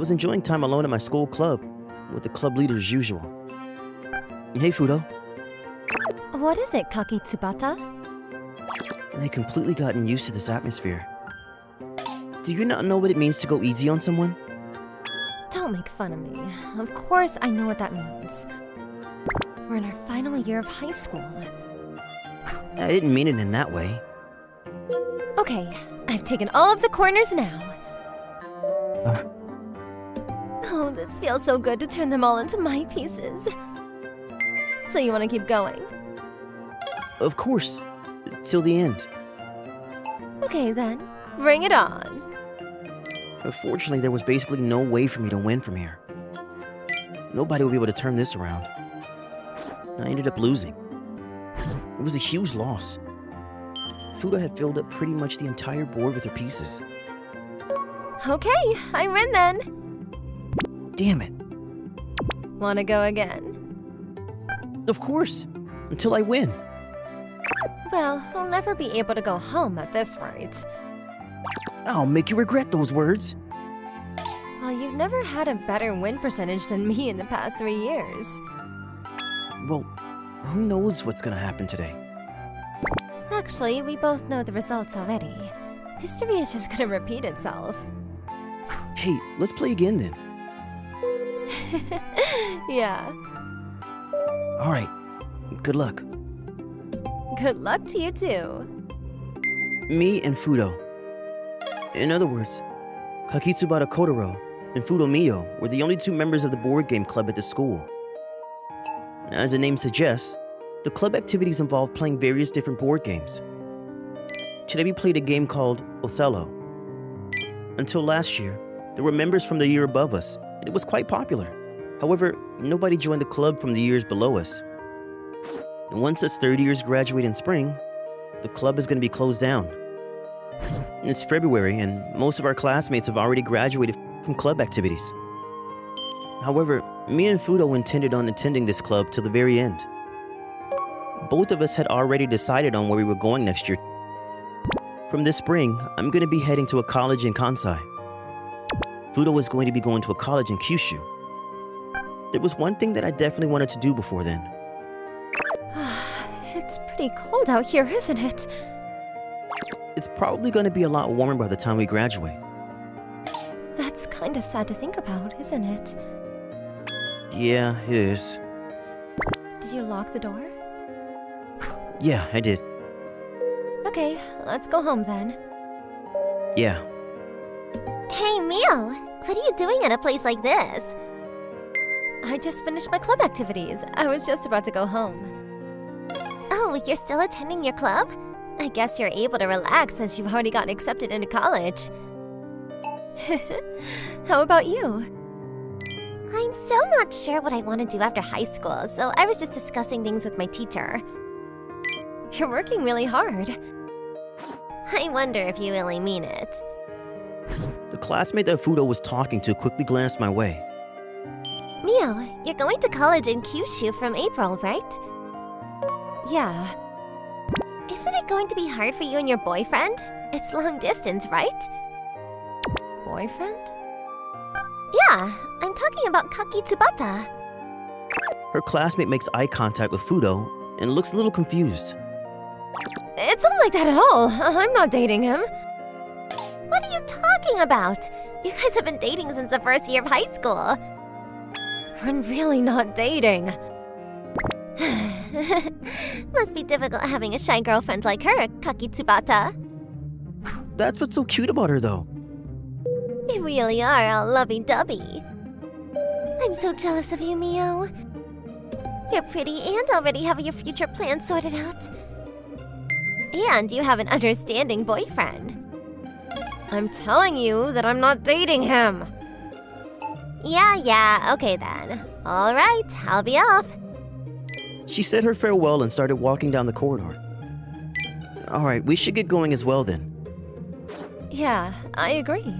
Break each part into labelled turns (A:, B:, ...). A: was enjoying time alone at my school club, with the club leader as usual. Hey, Fudo.
B: What is it, Kakitsubata?
A: I had completely gotten used to this atmosphere. Do you not know what it means to go easy on someone?
B: Don't make fun of me. Of course I know what that means. We're in our final year of high school.
A: I didn't mean it in that way.
B: Okay, I've taken all of the corners now.
A: Uh.
B: Oh, this feels so good to turn them all into my pieces. So you want to keep going?
A: Of course, till the end.
B: Okay then, bring it on.
A: But fortunately, there was basically no way for me to win from here. Nobody would be able to turn this around. I ended up losing. It was a huge loss. Fuda had filled up pretty much the entire board with her pieces.
B: Okay, I win then.
A: Damn it.
B: Want to go again?
A: Of course. Until I win.
B: Well, we'll never be able to go home at this rate.
A: I'll make you regret those words.
B: Well, you've never had a better win percentage than me in the past three years.
A: Well, who knows what's gonna happen today?
B: Actually, we both know the results already. History is just gonna repeat itself.
A: Hey, let's play again then.
B: Yeah.
A: Alright. Good luck.
B: Good luck to you too.
A: Me and Fudo. In other words, Kakitsubara Kotaro and Fudo Mio were the only two members of the board game club at the school. As the name suggests, the club activities involve playing various different board games. Today we played a game called Othello. Until last year, there were members from the year above us, and it was quite popular. However, nobody joined the club from the years below us. And once its third years graduate in spring, the club is going to be closed down. It's February, and most of our classmates have already graduated from club activities. However, me and Fudo intended on attending this club till the very end. Both of us had already decided on where we were going next year. From this spring, I'm going to be heading to a college in Kansai. Fudo is going to be going to a college in Kyushu. There was one thing that I definitely wanted to do before then.
B: It's pretty cold out here, isn't it?
A: It's probably going to be a lot warmer by the time we graduate.
B: That's kinda sad to think about, isn't it?
A: Yeah, it is.
B: Did you lock the door?
A: Yeah, I did.
B: Okay, let's go home then.
A: Yeah.
B: Hey, Mio! What are you doing at a place like this? I just finished my club activities. I was just about to go home. Oh, you're still attending your club? I guess you're able to relax since you've already gotten accepted into college. How about you? I'm still not sure what I want to do after high school, so I was just discussing things with my teacher. You're working really hard. I wonder if you really mean it.
A: The classmate that Fudo was talking to quickly glanced my way.
B: Mio, you're going to college in Kyushu from April, right? Yeah. Isn't it going to be hard for you and your boyfriend? It's long distance, right? Boyfriend? Yeah, I'm talking about Kaki Tsubata.
A: Her classmate makes eye contact with Fudo and looks a little confused.
B: It's not like that at all. I'm not dating him. What are you talking about? You guys have been dating since the first year of high school. We're really not dating. Must be difficult having a shy girlfriend like her, Kaki Tsubata.
A: That's what's so cute about her, though.
B: You really are all lovey dovey. I'm so jealous of you, Mio. You're pretty and already have your future plans sorted out. And you have an understanding boyfriend. I'm telling you that I'm not dating him. Yeah, yeah, okay then. Alright, I'll be off.
A: She said her farewell and started walking down the corridor. All right, we should get going as well then.
B: Yeah, I agree.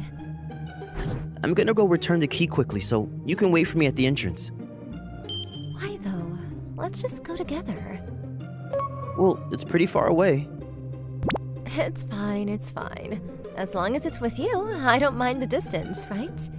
A: I'm gonna go return the key quickly, so you can wait for me at the entrance.
B: Why though? Let's just go together.
A: Well, it's pretty far away.
B: It's fine, it's fine. As long as it's with you, I don't mind the distance, right?